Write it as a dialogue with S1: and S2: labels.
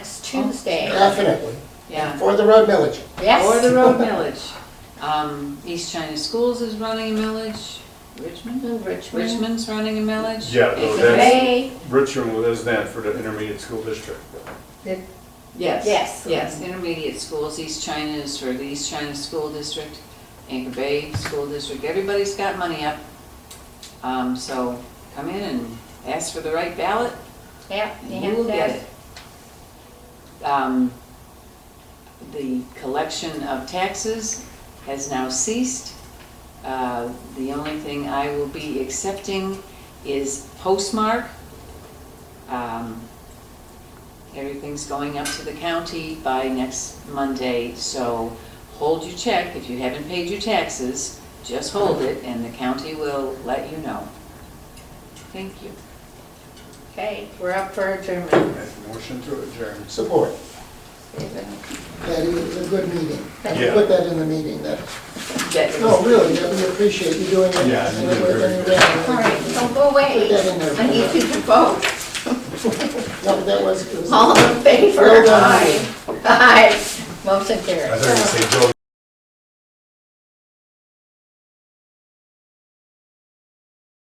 S1: definitely,
S2: Yeah.
S1: for the road millage.
S2: Or
S3: Yes,
S2: the road millage. Um, East China Schools is running a millage, Richmond?
S3: in Richmond.
S2: Richmond's running a millage.
S4: Yeah, no,
S2: It's a-
S4: that's-
S3: They,
S4: Richmond is then for the intermediate school district.
S2: Yes.
S3: Yes.
S2: Yes, intermediate schools, East China is for the East China School District, Anchor Bay School District, everybody's got money up. Um, so come in and ask for the right ballot,
S3: yeah, they
S2: and you
S3: have
S2: will get
S3: that.
S2: it. Um, the collection of taxes has now ceased. Uh, the only thing I will be accepting is postmark. Um, Everything's going up to the county by next Monday, so hold your check. If you haven't paid your taxes, just hold it, and the county will let you know. Thank you.
S3: Okay, we're up for adjournment.
S4: Motion to adjourn.
S1: Support.
S3: Is
S1: That is a good meeting. And
S4: Yeah.
S1: Put that in the meeting, that,
S2: That is-
S1: no, really, that we appreciate you doing it.
S4: Yeah, you
S1: And
S4: did
S1: we're
S4: very
S1: gonna-
S4: good.
S3: it- All right, don't go away.
S1: Put that in there.
S3: I need you to vote.
S1: No, but that was, it was.
S3: All in favor?
S1: Well done.
S3: Aye. Aye. Motion
S4: I
S3: carries.
S4: thought you were gonna say Joe